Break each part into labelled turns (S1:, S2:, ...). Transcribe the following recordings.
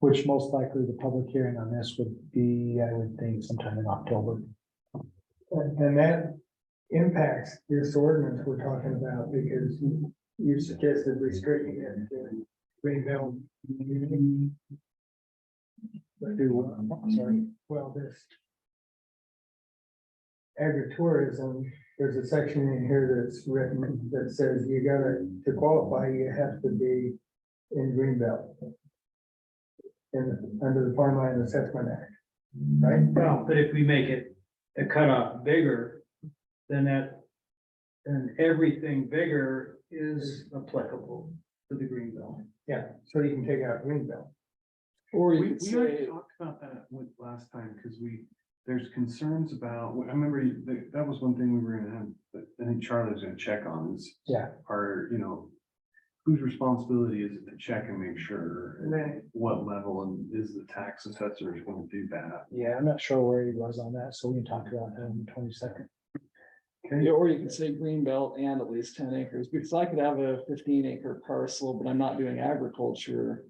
S1: Which most likely the public hearing on this would be, I would think sometime in October.
S2: And, and that impacts this ordinance we're talking about because you- you suggested restricting it to Greenbelt. But do, what? I'm sorry, well, this. Agritourism, there's a section in here that's written that says you gotta, to qualify, you have to be in Greenbelt. In, under the Farmland Assessment Act, right?
S3: Well, but if we make it a cutoff bigger, then that, then everything bigger is applicable to the green belt.
S2: Yeah, so you can take out Greenbelt.
S4: Or
S5: We,
S4: you could
S5: we already
S4: say,
S5: talked about that with last time, because we, there's concerns about, I remember you- that, that was one thing we were gonna have, but I think Charlie was gonna check on is.
S1: Yeah.
S5: Are, you know, whose responsibility is it to check and make sure? and
S2: Right.
S5: What level and is the tax assessor is gonna do that?
S1: Yeah, I'm not sure where he was on that, so we can talk about that on the twenty second.
S4: yeah, or you could say green belt and at least ten acres, because I could have a fifteen acre parcel, but I'm not doing agriculture.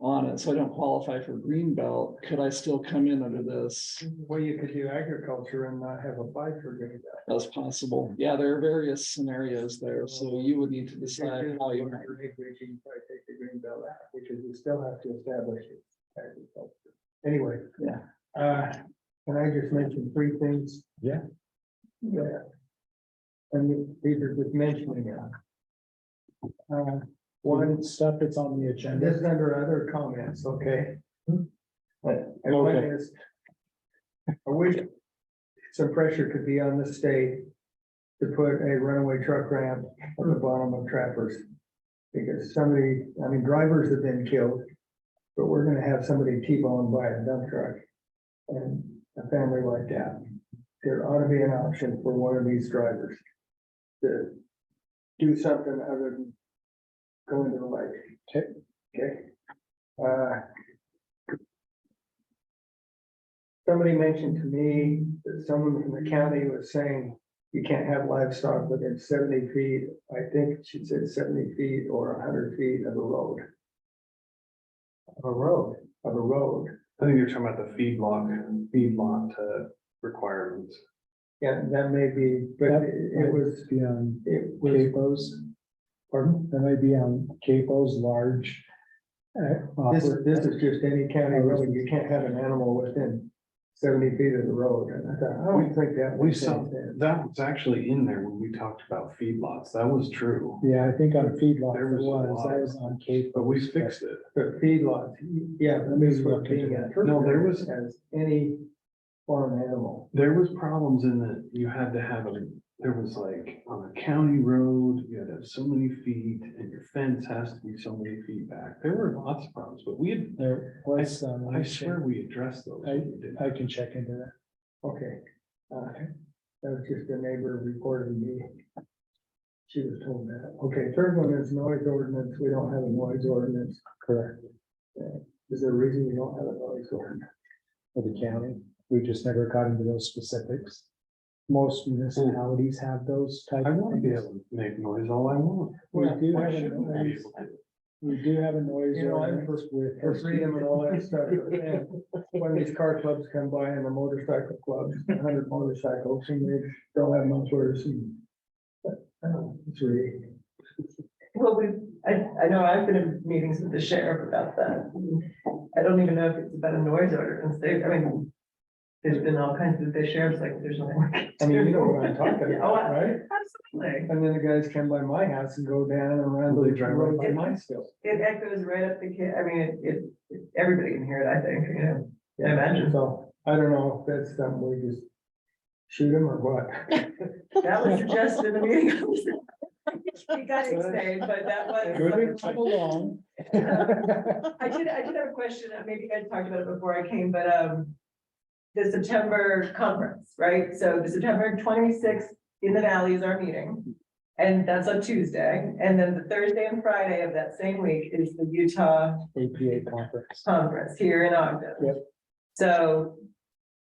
S4: On it, so I don't qualify for green belt. Could I still come in under this?
S2: Well, you could do agriculture and not have applied for Greenbelt.
S4: That's possible. Yeah, there are various scenarios there, so you would need to
S2: If you're
S4: decide
S2: doing
S4: how you.
S2: larger acreage, you can probably take the Greenbelt out, because you still have to establish it. as agriculture. Anyway.
S4: Yeah.
S2: Uh, can I just mention three things?
S1: Yeah.
S2: Yeah. And these are just mentioning it. Uh, one,
S1: One stuff that's on the
S2: And this
S1: agenda,
S2: is under other comments, okay? But and one
S1: Okay.
S2: is. I wish some pressure could be on the state to put a runaway truck ramp at the bottom of trappers. Because somebody, I mean, drivers have been killed, but we're gonna have somebody T-boned by a dump truck. And a family like that, there ought to be an option for one of these drivers. To do something other than go into the lake. Okay. Uh, Somebody mentioned to me that someone from the county was saying you can't have livestock within seventy feet. I think she said seventy feet or hundred feet of a road. Of a road, of a road.
S5: I think you're talking about the feedlot, feedlot uh, requirements.
S2: Yeah, that may be, but
S1: Yep.
S2: it was,
S1: be on
S2: it was,
S1: capos, pardon, that might be on capos, large. uh,
S2: this,
S1: offer-
S2: this is just any county
S5: Oh,
S2: road. You can't have an animal within seventy feet of the road. And I thought, I don't think that.
S5: We
S2: would
S5: saw-
S2: change that.
S5: That was actually in there when we talked about feedlots. That was true,
S1: Yeah, I think on feedlot,
S5: There
S1: it
S5: was a
S1: was,
S5: lot.
S1: that was on cape.
S5: but we fixed it.
S2: The feedlot, yeah, that means we're being interpreted.
S5: No, there was-
S2: As any farm animal.
S5: There was problems in that you had to have a, there was like on a county road, you had to have so many feet and your fence has to be so many feet back. There were lots of problems, but we had,
S1: There was, um,
S5: I swear we addressed those. when we did
S1: I
S5: it.
S1: can check into that.
S2: Okay. uh, That was just a neighbor reported me. She was told that. Okay, third one is noise ordinance. We don't have a noise ordinance.
S1: Correct,
S2: Is there a reason we don't have a noise ordinance?
S1: for the county, we just never got into those specifics. Most municipalities have those type.
S5: I
S1: of
S5: want to be
S1: things.
S5: able to make noise all I want.
S1: We
S2: Well,
S1: do
S5: Why
S1: have a
S5: shouldn't I be
S1: noise,
S5: able to?
S1: we do have a noise
S2: You know, I'm
S1: ordinance with.
S2: For freedom and all that stuff. And When these car clubs come by and the motorcycle clubs, a hundred motorcycles, and they don't have mufflers and. but, I don't know, It's really.
S6: Well, we, I, I know I've been in meetings with the sheriff about that. I don't even know if it's about a noise ordinance. They, I mean, there's been all kinds of, the sheriff's like, there's nothing.
S2: I mean, you know what I'm talking
S6: Yeah, oh,
S2: about,
S6: I-
S2: right?
S6: Absolutely.
S2: And then the guys come by my house and go down and around
S5: They
S2: the
S5: drive
S2: road by
S6: right by.
S2: my still.
S6: It echoes right up the, ca- I mean, it- it, it, everybody can hear it, I think, you know. I imagine.
S2: So I don't know if that's something we just shoot them or what.
S6: That was suggested in the meeting. We got it saved, but that was.
S1: Come along.
S6: I did, I did have a question, uh, maybe you guys talked about it before I came, but, um, the September conference, right? So the September twenty-sixth in the valley is our meeting. And that's on Tuesday. And then the Thursday and Friday of that same week is the Utah
S1: APA conference.
S6: conference here in Ogden.
S1: Yep.
S6: So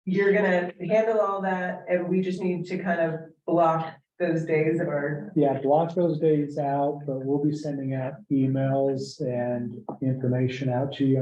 S6: you're gonna handle all that and we just need to kind of block those days of our,
S1: Yeah, block those days out, but we'll be sending out emails and information out to you